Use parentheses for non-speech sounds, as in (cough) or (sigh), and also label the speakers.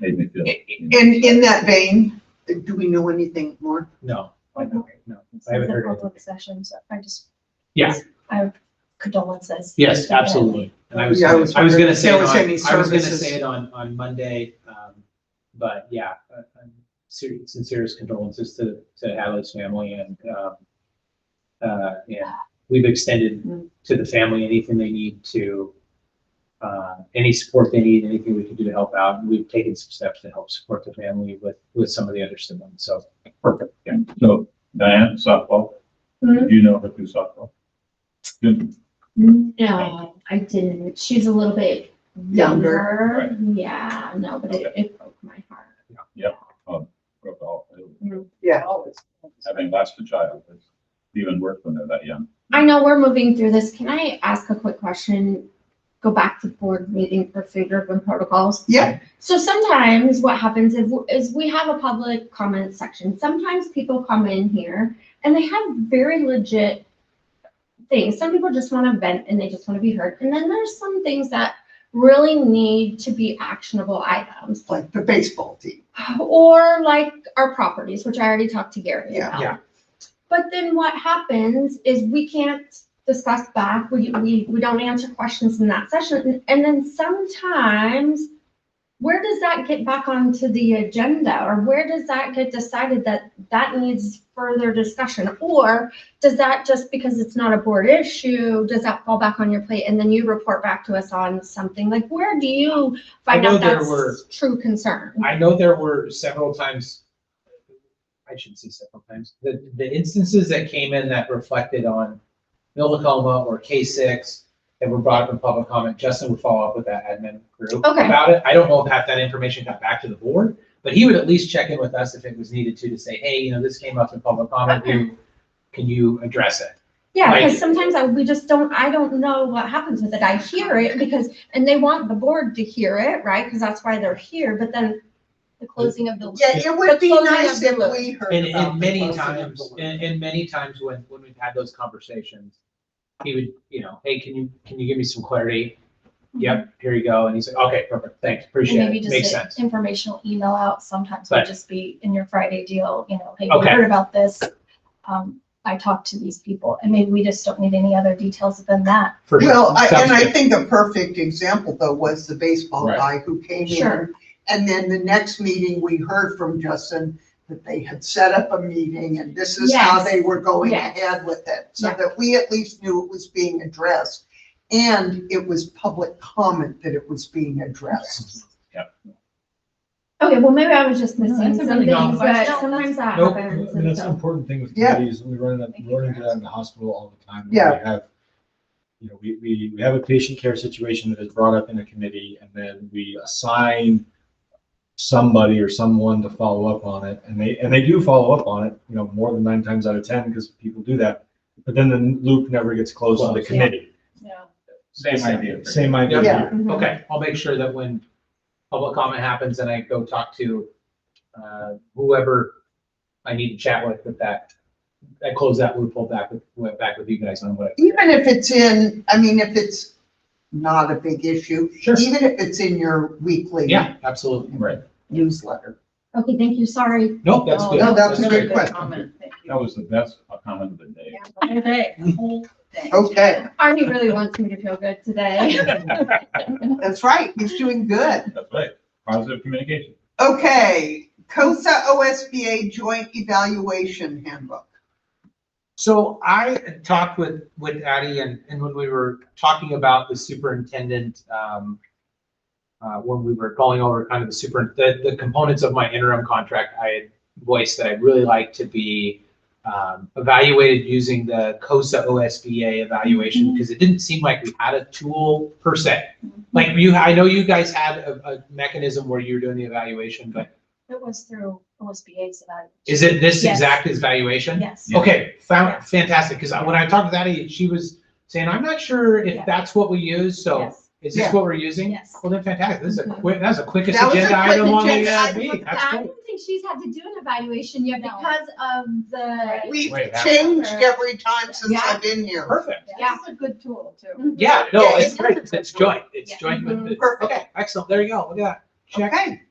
Speaker 1: made me feel.
Speaker 2: In, in that vein, do we know anything more?
Speaker 3: No, I don't, no,
Speaker 4: It's
Speaker 3: I haven't
Speaker 4: a
Speaker 3: heard anything.
Speaker 4: public session, so I just.
Speaker 3: Yeah.
Speaker 4: I have condolences.
Speaker 3: Yes, absolutely. And I was,
Speaker 2: Yeah, I
Speaker 3: gonna-
Speaker 2: was
Speaker 3: I was
Speaker 2: wondering
Speaker 3: gonna
Speaker 2: if
Speaker 3: say,
Speaker 2: there
Speaker 3: it
Speaker 2: was
Speaker 3: on- I
Speaker 2: any
Speaker 3: was gonna
Speaker 2: services.
Speaker 3: say it on, on Monday, um, but yeah. uh, um, seri- Sincerest condolences to, to Hadley's family and, um, uh, yeah, we've extended
Speaker 4: Mm.
Speaker 3: to the family anything they need to, uh, any support they need, anything we can do to help out. And we've taken some steps to help support the family with, with some of the other siblings, so.
Speaker 1: Perfect, yeah. So Diane, softball,
Speaker 2: Hmm?
Speaker 1: do you know her through softball? Good.
Speaker 5: No, I didn't. She's a little bit
Speaker 2: Younger.
Speaker 5: younger. Yeah, no, but it, it broke my heart.
Speaker 1: Broke all-
Speaker 2: Yeah.
Speaker 1: Having lost a child, it's even worse when they're that young.
Speaker 5: I know we're moving through this. Can I ask a quick question? Go back to board meeting for food urban protocols.
Speaker 2: Yeah.
Speaker 5: So sometimes what happens is, is we have a public comment section. Sometimes people come in here and they have very legit things. Some people just want to vent and they just want to be heard. And then there's some things that really need to be actionable items.
Speaker 2: Like the baseball team.
Speaker 5: Or like our properties, which I already talked to Gary
Speaker 2: Yeah.
Speaker 5: about.
Speaker 3: Yeah.
Speaker 5: But then what happens is we can't discuss back, we, we, we don't answer questions in that session. And then sometimes, where does that get back onto the agenda? Or where does that get decided that that needs further discussion? Or does that, just because it's not a board issue, does that fall back on your plate and then you report back to us on something? Like, where do you find
Speaker 3: I know
Speaker 5: out
Speaker 3: there were-
Speaker 5: that's true concern?
Speaker 3: I know there were several times, I shouldn't say several times, the, the instances that came in that reflected on Millicoma or K six that were brought up in public comment, Justin would follow up with that admin group
Speaker 5: Okay.
Speaker 3: about it. I don't know if half that information got back to the board, but he would at least check in with us if it was needed to, to say, hey, you know, this came up in public comment,
Speaker 5: Okay.
Speaker 3: Can- can you address it?
Speaker 5: Yeah,
Speaker 3: Like-
Speaker 5: because sometimes I, we just don't, I don't know what happens with it. I hear it because, and they want the board to hear it, right? Because that's why they're here, but then the closing of the. loop.
Speaker 2: Yeah, it would be
Speaker 5: But closing
Speaker 2: nice
Speaker 5: of the
Speaker 2: if
Speaker 5: loop.
Speaker 2: we heard
Speaker 3: And,
Speaker 2: about
Speaker 3: and
Speaker 2: the
Speaker 3: many
Speaker 2: closing of the
Speaker 3: times,
Speaker 2: loop.
Speaker 3: and, and many times when, when we've had those conversations, he would, you know, hey, can you, can you give me some clarity? Yep, here you go. And he's like, okay, perfect, thanks,
Speaker 4: Mm-hmm. And
Speaker 3: appreciate
Speaker 4: maybe
Speaker 3: it,
Speaker 4: just
Speaker 3: makes
Speaker 4: an
Speaker 3: sense.
Speaker 4: informational email out, sometimes would
Speaker 3: Right.
Speaker 4: just be in your Friday deal, you know, hey, we
Speaker 3: Okay.
Speaker 4: heard about this. Um, I talked to these people, and maybe we just don't need any other details than that.
Speaker 3: For sure.
Speaker 2: Well, I-
Speaker 3: Sounds
Speaker 2: and I
Speaker 3: good.
Speaker 2: think a perfect example though was the baseball
Speaker 1: Right.
Speaker 2: guy who came
Speaker 5: Sure.
Speaker 2: in. And then the next meeting, we heard from Justin that they had set up a meeting and this is how
Speaker 5: Yes.
Speaker 2: they were going
Speaker 5: Yes.
Speaker 2: ahead with it. So
Speaker 5: Yeah.
Speaker 2: that we at least knew it was being addressed and it was public comment that it was being addressed.
Speaker 5: Okay, well, maybe I was just
Speaker 6: No,
Speaker 5: missing
Speaker 6: that's a
Speaker 5: some
Speaker 6: really
Speaker 5: things,
Speaker 6: good
Speaker 5: but
Speaker 6: question.
Speaker 5: sometimes that
Speaker 3: Nope.
Speaker 6: I
Speaker 5: happens.
Speaker 6: mean,
Speaker 5: and
Speaker 6: that's an
Speaker 5: so-
Speaker 6: important thing with
Speaker 2: Yeah.
Speaker 6: committees, and we run it, up- we run into that in the hospital all the time.
Speaker 2: Yeah.
Speaker 6: We have, you know, we, we, we have a patient care situation that is brought up in a committee, and then we assign somebody or someone to follow up on it, and they, and they do follow up on it, you know, more than nine times out of ten, because people do that. But then the loop never gets closed on the
Speaker 3: Closed.
Speaker 6: committee.
Speaker 4: Yeah.
Speaker 1: Same idea.
Speaker 6: Same idea.
Speaker 2: Yeah.
Speaker 6: here.
Speaker 5: Mhm.
Speaker 3: Okay, I'll make sure that when public comment happens and I go talk to, uh, whoever I need to chat with, with that, I close that loophole back with, went back with you guys on what.
Speaker 2: Even if it's in, I mean, if it's not a big issue,
Speaker 3: Sure,
Speaker 2: even if it's in your weekly
Speaker 3: yeah, absolutely.
Speaker 1: Right,
Speaker 2: newsletter.
Speaker 5: Okay, thank you, sorry.
Speaker 3: Nope,
Speaker 4: Oh,
Speaker 3: that's
Speaker 2: No,
Speaker 3: good.
Speaker 2: that was
Speaker 3: That's
Speaker 2: a
Speaker 3: great.
Speaker 2: good question.
Speaker 1: that was the best comment of the day.
Speaker 5: (laughs)
Speaker 2: Okay,
Speaker 5: Arnie really wants me to feel good today.
Speaker 2: that's right. He's doing good.
Speaker 1: That's right, positive communication.
Speaker 2: Okay, COSA OSBA Joint Evaluation Handbook.
Speaker 3: So I talked with, with Addie and, and when we were talking about the superintendent, um, uh, when we were going over kind of the super, the, the components of my interim contract, I had voiced that I'd really like to be, um, evaluated using the COSA OSBA evaluation, because it didn't seem like we had a tool per se.
Speaker 4: Mm-hmm.
Speaker 3: Like you, I know you guys had a, a mechanism where you were doing the evaluation, but
Speaker 4: It was through OSBA's evaluation.
Speaker 3: is it this
Speaker 4: Yes.
Speaker 3: exact evaluation?
Speaker 4: Yes.
Speaker 1: Yeah.
Speaker 3: Okay,
Speaker 4: Yeah.
Speaker 3: found, fantastic, because when I talked to that, she was saying, I'm not sure if
Speaker 4: Yeah.
Speaker 3: that's what we use, so
Speaker 4: Yes.
Speaker 3: is
Speaker 2: Yeah. Mm-hmm.
Speaker 3: this what we're using?
Speaker 4: Yes.
Speaker 3: Well, then fantastic, this is a
Speaker 5: Mhm.
Speaker 3: quick, that's the quickest
Speaker 2: That was a
Speaker 3: agenda
Speaker 2: quick
Speaker 3: item on the
Speaker 2: agenda
Speaker 3: uh,
Speaker 2: item.
Speaker 3: meeting, that's
Speaker 5: I
Speaker 3: cool.
Speaker 5: don't think she's had to do an evaluation yet
Speaker 4: No.
Speaker 5: because of the.
Speaker 2: We've
Speaker 6: Wait, that-
Speaker 2: changed every time since
Speaker 5: Yeah.
Speaker 2: I've been here.
Speaker 3: Perfect,
Speaker 5: Yeah.
Speaker 4: It's a good tool too.
Speaker 3: yeah, no,
Speaker 2: Yeah,
Speaker 3: it's
Speaker 5: it's-
Speaker 3: great, it's joint, it's
Speaker 4: Yeah.
Speaker 3: joint with the,
Speaker 2: Mm-hmm. Perfect.
Speaker 3: okay, excellent, there you go, look at that, check.
Speaker 2: Okay,